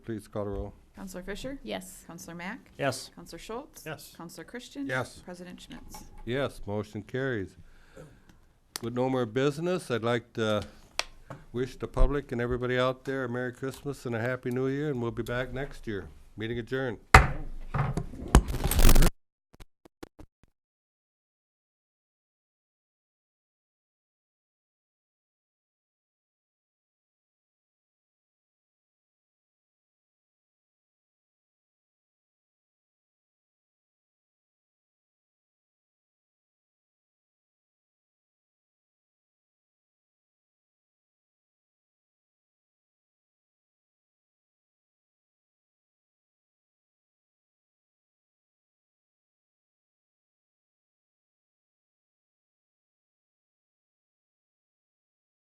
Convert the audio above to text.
Please call the roll. Counselor Fisher? Yes. Counselor Mack? Yes. Counselor Schultz? Yes. Counselor Christian? Yes. President Schmitz? Yes, motion carries. With no more business, I'd like to wish the public and everybody out there a Merry Christmas and a Happy New Year, and we'll be back next year. Meeting adjourned.